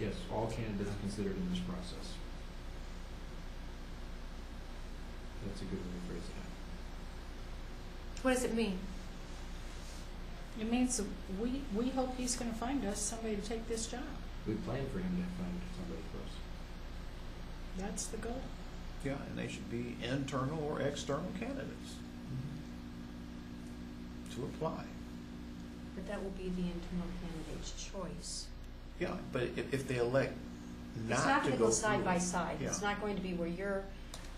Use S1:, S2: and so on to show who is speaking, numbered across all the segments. S1: Yes, all candidates considered in this process. That's a good way to phrase that.
S2: What does it mean?
S3: It means that we, we hope he's gonna find us somebody to take this job.
S1: We plan for him to find somebody for us.
S3: That's the goal.
S4: Yeah, and they should be internal or external candidates to apply.
S2: But that will be the internal candidate's choice.
S4: Yeah, but if, if they elect
S2: It's not
S4: not to
S2: gonna
S4: go
S2: go side by
S4: through,
S2: side. It's
S4: Yeah.
S2: not going to be where you're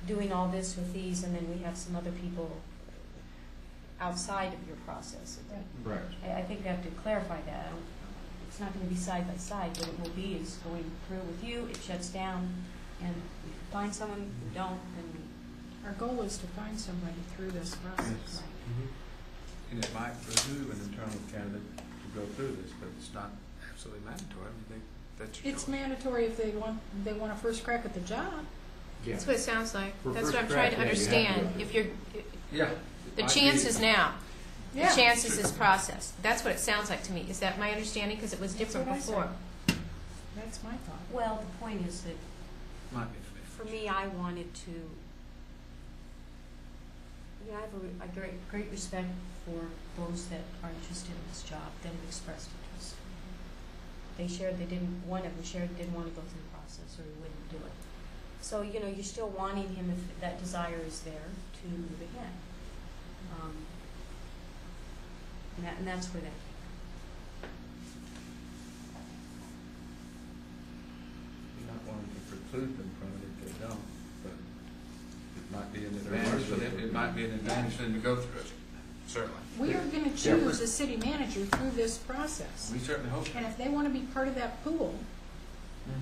S2: doing all this with these and then we have some other people outside of your process.
S1: Correct.
S2: I, I think we have to clarify that. I don't- It's not gonna be side by side. What it will be is going through with you, it shuts down, and if you find someone, you don't, then
S3: Our goal is to find somebody through this process.
S2: Right.
S1: Mm-hmm.
S5: And it might behoove an internal candidate to go through this, but it's not absolutely mandatory. I mean, they, that's your
S3: It's
S5: choice.
S3: mandatory if they want, they want a first crack at the job.
S1: Yeah.
S6: That's what it sounds like.
S1: For
S6: That's what
S1: first
S6: I'm trying to
S1: draft, yeah, you have to
S6: understand.
S1: go
S6: If you're,
S5: Yeah.
S6: the
S5: Might
S6: chance
S5: be-
S6: is now. The
S3: Yeah.
S6: chance is this process. That's what it sounds like to me. Is that my understanding? Because it was
S3: That's
S6: different
S3: what I said.
S6: before.
S3: That's my thought.
S2: Well, the point is that
S5: Might be.
S2: For me, I wanted to, you know, I have a, a great, great respect for those that are interested in this job, that have expressed interest. They shared, they didn't, one of them shared, didn't want to go through the process, or he wouldn't do it. So, you know, you're still wanting him, if that desire is there, to move ahead. Um, And that, and that's where that
S5: You're not wanting to preclude them from it if they don't, but it might be an
S1: They're
S5: advantage for them.
S1: worth it.
S5: It might be an advantage for them to go through it, certainly.
S3: We are gonna
S1: Yeah.
S3: choose a city manager through this process.
S5: We certainly hope.
S3: And if they wanna be part of that pool,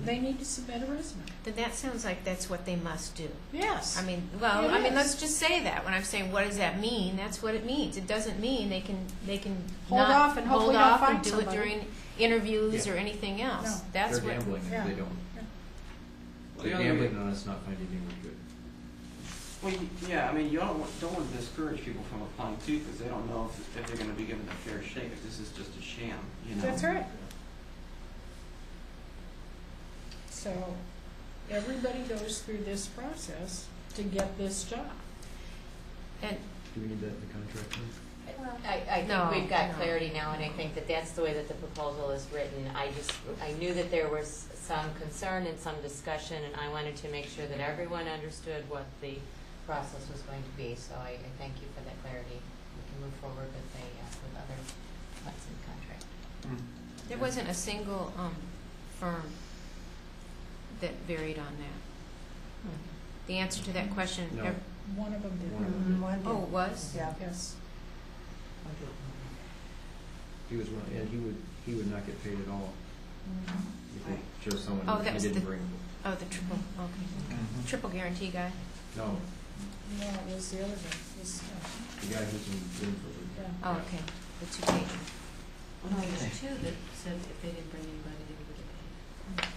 S3: they need to submit a resume.
S6: Then that sounds like that's what they must do.
S3: Yes.
S6: I mean, well,
S3: It
S6: I mean,
S3: is.
S6: let's just say that. When I'm saying, what does that mean? That's what it means. It doesn't mean they can, they can
S3: Hold
S6: not
S3: off and hopefully
S6: hold
S3: not
S6: off and
S3: find
S6: do
S3: somebody.
S6: it during interviews
S1: Yeah.
S6: or anything else.
S3: No.
S6: That's
S1: They're
S6: what.
S1: gambling if
S3: yeah.
S1: they don't.
S3: Yeah.
S1: They're
S7: Well, the
S1: gambling
S7: other-
S1: on us not finding anyone good.
S7: Well, you- yeah, I mean, you don't, want- don't want to discourage people from applying too, because they don't know if, if they're gonna be given a fair shake, if this is just a sham, you know?
S3: That's right. So, everybody goes through this process to get this job.
S6: And
S1: Do we need that in the contract? then?
S8: I, I
S6: No,
S8: think we've got
S6: no.
S8: clarity now, and I think that that's the way that the proposal is written. I just, I knew that there was some concern and some discussion, and I wanted to make sure that everyone understood what the process was going to be, so I, I thank you for that clarity. We can move forward with the, uh, with other parts of the contract.
S7: Mm.
S6: there wasn't a single um, firm that varied on that. The answer to that question.
S1: No.
S6: ev-
S3: One of them
S1: One of
S3: did.
S1: them.
S6: Oh, it was?
S3: Yes.
S1: He was one, and he would, he would not get paid at all if we chose someone
S6: Oh, that
S1: he
S6: was
S1: didn't
S6: the-
S1: bring.
S6: Oh, the triple, okay.
S5: Mm-hmm.
S6: Triple guarantee guy.
S1: No,
S3: No, it was the other one. It was, uh,
S1: the guy who's in Winford.
S3: yeah.
S6: Oh, okay. The two pager.
S2: Well, Oh, no, there's two that said if they didn't bring anybody, they would get paid.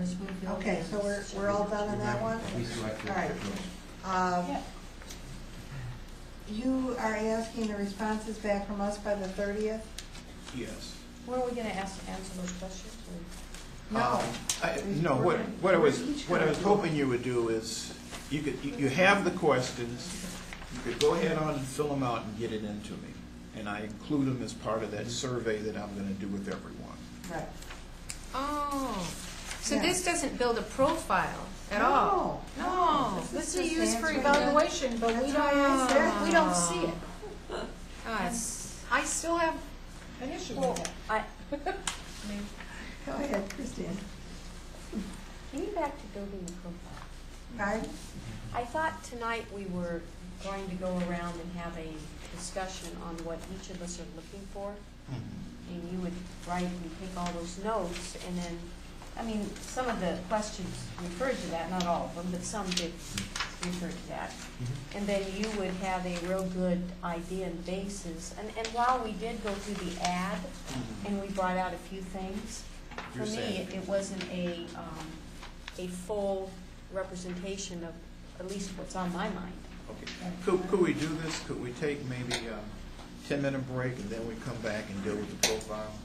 S2: Was Woodville-
S9: Okay, so we're, we're all done on that one?
S1: We selected.
S9: All right. Um, You are asking the responses back from us by the thirtieth?
S4: Yes.
S2: Were we gonna ask, answer those questions? or-
S9: No.
S4: Um, I- No, what, what I was, what I was hoping you would do is, you could, you you have the questions, you could go ahead on and fill them out and get it into me. And I include them as part of that survey that I'm gonna do with everyone.
S9: Right.
S6: Oh, so
S9: Yeah.
S6: this doesn't build a profile at all?
S9: Oh,
S6: No, this is
S9: This is just
S6: used for
S9: answering
S6: evaluation, Ah. but we
S2: Ah.
S6: don't, we don't see it.
S3: And
S6: I still have,
S3: An issue
S2: Well,
S3: with that.
S2: I,
S9: Go ahead, Christine.
S2: can you back to building the profile?
S9: Right?
S2: I thought tonight we were going to go around and have a discussion on what each of us are looking for. And you would write and take all those notes and then, I mean, some of the questions referred to that, not all of them, but some did refer to that. And then you would have a real good idea and basis. And, and while we did go through the ad and we brought out a few things, for
S4: You're
S2: me,
S4: saying-
S2: it- it wasn't a, um, a full representation of at least what's on my mind.
S4: Okay, could, could we um, do this, could we take maybe a ten-minute break and then we come back and deal with the profile?